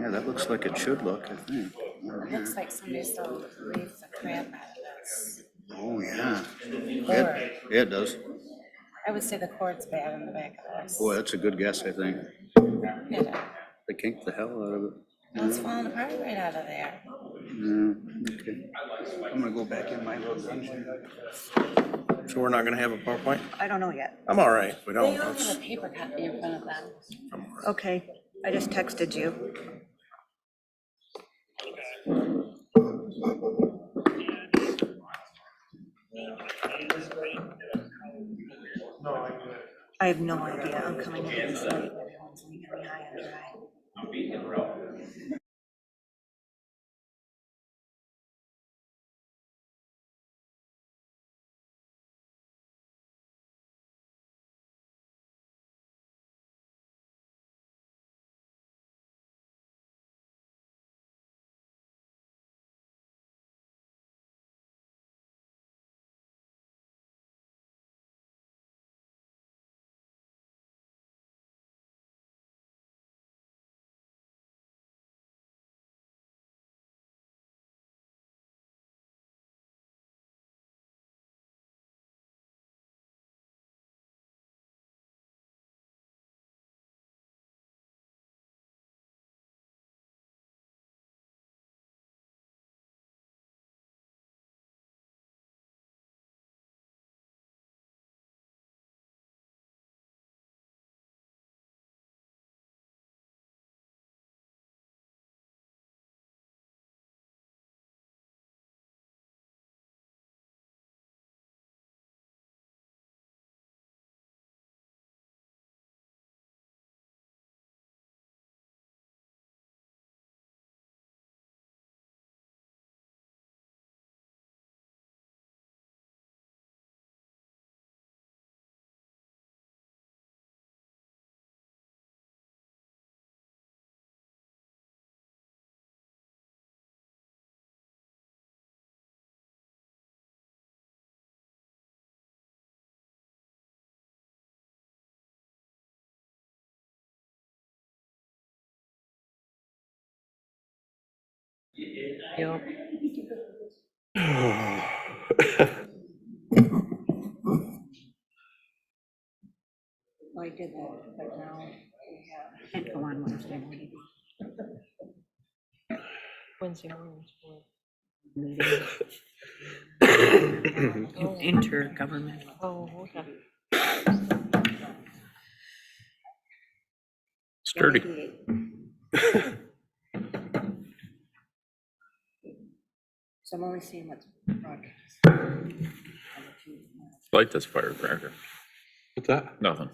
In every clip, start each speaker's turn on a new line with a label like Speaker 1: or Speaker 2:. Speaker 1: Yeah, that looks like it should look, I think.
Speaker 2: Looks like somebody still reads the crap out of
Speaker 1: Oh, yeah.
Speaker 2: this.
Speaker 1: It,
Speaker 2: Or,
Speaker 1: it does.
Speaker 2: I would say the cord's bad on the back of the
Speaker 1: Boy,
Speaker 2: horse.
Speaker 1: that's a good guess, I think.
Speaker 2: Yeah,
Speaker 1: They kinked the hell out of it.
Speaker 2: It's falling apart right out of there.
Speaker 1: Yeah, Mm, okay. I'm gonna go back in my little dungeon.
Speaker 3: So we're not gonna have a PowerPoint?
Speaker 4: I don't know yet.
Speaker 3: I'm all right, if we
Speaker 2: They
Speaker 3: don't,
Speaker 2: don't have
Speaker 3: that's,
Speaker 2: a paper copy in front of them.
Speaker 4: Okay, I just texted you. I have no idea. I'm coming in this late. Everyone's leaving me high and dry.
Speaker 2: Yep. Well, I did that, but now we have- can't go on Wednesday morning.
Speaker 5: Wednesday mornings. for-
Speaker 4: Intergovernmental.
Speaker 5: Oh, okay.
Speaker 3: sturdy.
Speaker 2: So I'm only seeing what's broadcast.
Speaker 6: Light this firecracker.
Speaker 7: What's that?
Speaker 6: Nothing.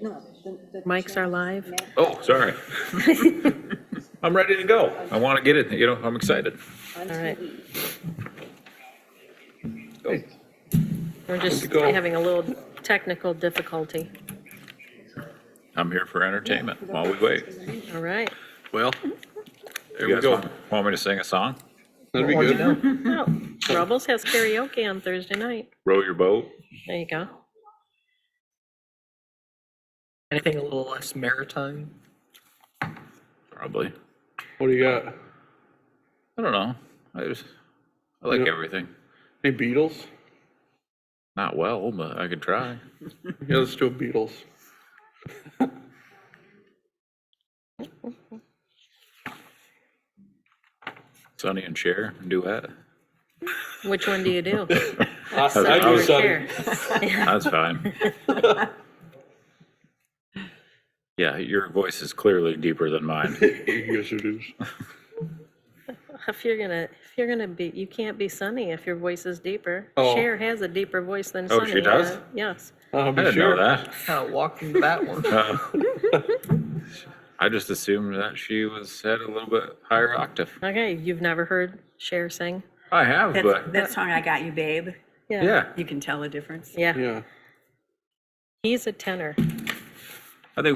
Speaker 4: No, the, the.
Speaker 5: Mics are live.
Speaker 6: Oh, sorry. I'm ready to go. I want to get it, you know, I'm excited.
Speaker 4: All
Speaker 5: right.
Speaker 6: Go.
Speaker 5: We're just
Speaker 7: go.
Speaker 5: having a little technical difficulty.
Speaker 6: I'm here for entertainment while we wait.
Speaker 5: All right.
Speaker 7: Well,
Speaker 6: You
Speaker 7: there we
Speaker 6: guys
Speaker 7: go.
Speaker 6: want want me to sing a song?
Speaker 7: That'd be good.
Speaker 5: Oh, Rubbles has karaoke on Thursday night.
Speaker 6: Row your boat?
Speaker 5: There you go.
Speaker 8: Anything a little less maritime?
Speaker 6: Probably.
Speaker 7: What do you got?
Speaker 6: I don't know. I just, I like
Speaker 7: Yeah.
Speaker 6: everything.
Speaker 7: Any Beatles?
Speaker 6: Not well, but I could try.
Speaker 7: Yeah, let's do a Beatles.
Speaker 6: Sonny and Cher, duet.
Speaker 5: Which one do you do?
Speaker 7: I do
Speaker 5: Or
Speaker 7: Sonny.
Speaker 5: Cher?
Speaker 6: That's fine. Yeah, your voice is clearly deeper than mine.
Speaker 7: Yes, it is. Uh,
Speaker 5: If you're gonna, if you're gonna be, you can't be Sunny if your voice is deeper.
Speaker 7: Oh.
Speaker 5: Cher has a deeper voice than
Speaker 6: Oh,
Speaker 5: Sunny.
Speaker 6: she does?
Speaker 5: uh, Yes.
Speaker 7: I
Speaker 6: I didn't know that.
Speaker 8: Kind of walked into that one.
Speaker 6: Uh, I just assumed that she was at a little bit higher octave.
Speaker 5: Okay, you've never heard Cher sing?
Speaker 6: I have, but
Speaker 4: That song I got you, babe.
Speaker 6: yeah,
Speaker 4: You can tell the difference.
Speaker 5: Yeah,
Speaker 7: Yeah.
Speaker 5: he's a tenor.